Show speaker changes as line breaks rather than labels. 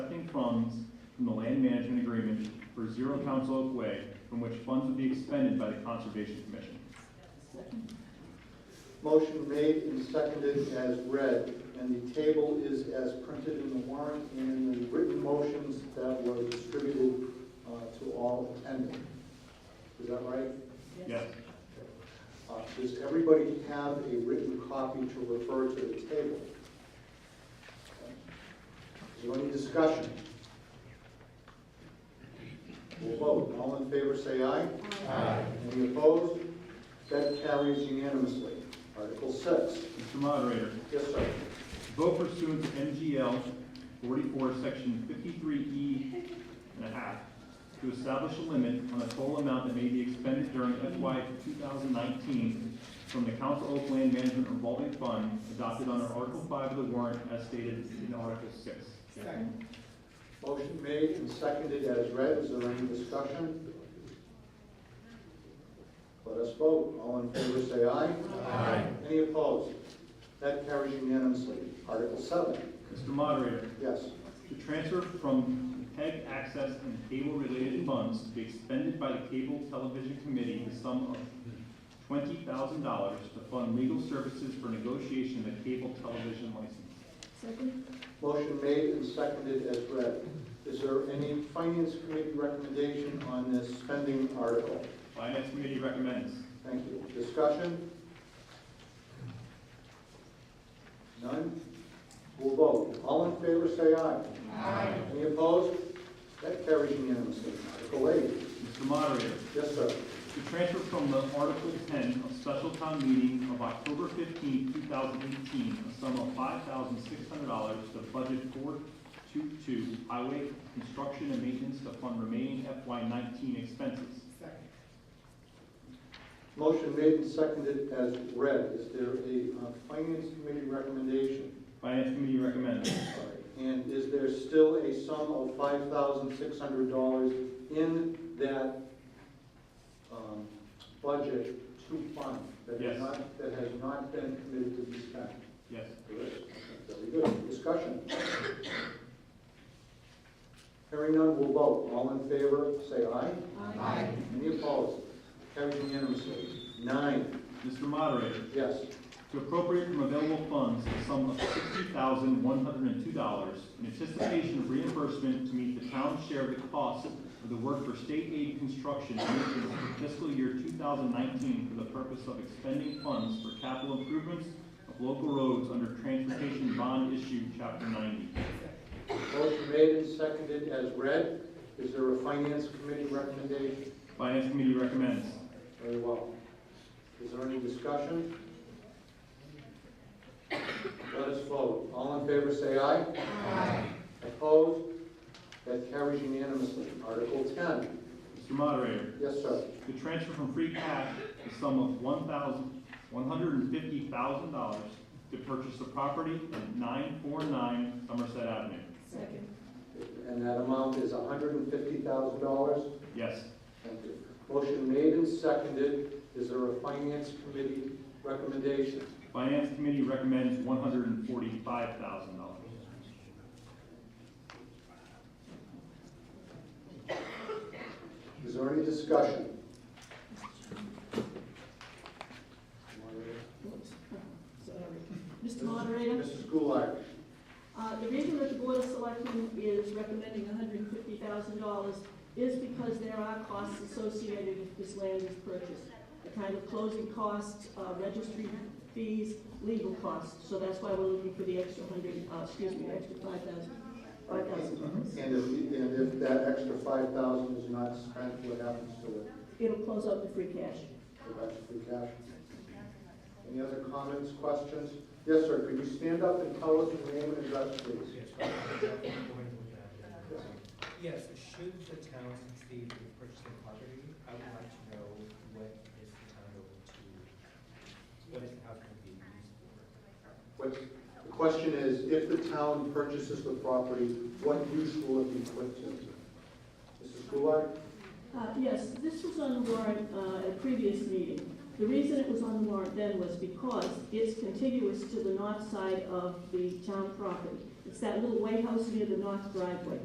funds from the land management agreement for Zero Council Oak Way, from which funds would be expended by the Conservation Commission.
Motion made and seconded as read, and the table is as printed in the warrant and in the written motions that were distributed uh, to all attending. Is that right?
Yes.
Uh, Does everybody have a written copy to refer to the table? Is there any discussion? We'll vote. All in favor, say aye. Aye. Any opposed? That carries unanimously. Article six.
Mr. Moderator,
Yes, sir.
vote pursuant to MGL 44, Section 53E and a half, to establish a limit on the total amount that may be expended during FY 2019 from the Council Oak Land Management Revolving Fund adopted under Article 5 of the warrant as stated in Article 6.
Motion made and seconded as read. Is there any discussion? Let us vote. All in favor, say aye. Aye. Any opposed? That carries unanimously. Article seven.
Mr. Moderator,
Yes.
to transfer from PEG access and cable-related funds to be expended by the Cable Television Committee the sum of twenty thousand dollars to fund legal services for negotiation of the cable television license.
Second?
Motion made and seconded as read. Is there any finance committee recommendation on this spending article?
Finance Committee recommends.
Thank you. Discussion? None? We'll vote. All in favor, say aye. Aye. Any opposed? That carries unanimously. Article eight.
Mr. Moderator,
Yes, sir.
to transfer from the Article ten of Special Town Meeting of October fifteenth, two thousand eighteen, a sum of five thousand six hundred dollars to Budget four two two Highway Construction and Maintenance to fund remaining FY nineteen expenses.
Motion made and seconded as read. Is there a uh, finance committee recommendation?
Finance Committee recommends.
And is there still a sum of five thousand six hundred dollars in that, um, budget to fund? that has
Yes.
not- That has not been committed to be spent?
Yes.
Correct. Very good, discussion. Hearing none, we'll vote. All in favor, say aye.
Aye.
Any opposed? Carried unanimously. Nine,
Mr. Moderator,
yes.
to appropriate from available funds a sum of sixty thousand one hundred and two dollars in anticipation of reimbursement to meet the town's share of the cost of the work for state aid construction and maintenance for fiscal year two thousand nineteen for the purpose of expending funds for capital improvements of local roads under transportation bond issue chapter ninety.
Motion made and seconded as read. Is there a finance committee recommendation?
Finance Committee recommends.
Very well. Is there any discussion? Let us vote. All in favor, say aye. Aye. Opposed? That carries unanimously. Article 10.
Mr. Moderator,
Yes, sir.
to transfer from free cash the sum of one thousand, one hundred and fifty thousand dollars to purchase the property at nine four nine Somerset Avenue.
Second?
And that amount is $150,000.
Yes.
Thank you. Motion made and seconded. Is there a finance committee recommendation?
Finance Committee recommends one hundred and forty-five thousand dollars.
Is there any discussion?
Oops. Sorry. Mr. Moderator,
Mrs. Goulart.
uh, the reason that the Board of Selectmen is recommending $150,000 is because there are costs associated if this land is purchased. The kind of closing costs, uh, registry fees, legal costs. So that's why we're looking for the extra 100, uh, excuse me, the extra 5,000,
And
$5,000.
if, and if that extra five thousand is not spent, what happens to it?
It'll close out the free cash.
Go back to free cash? Any other comments, questions? Yes, sir, could you stand up and tell us your name and address, please?
Yes, should the town succeed in purchasing property, I would like to know what is the town going to, what is the house going to be used for?
What, the question is, if the town purchases the property, what use will it be put to? Mrs. Goulart?
Uh, Yes, this was on warrant uh, at a previous meeting. The reason it was on warrant then was because it's contiguous to the north side of the town property. It's that little white house near the north driveway.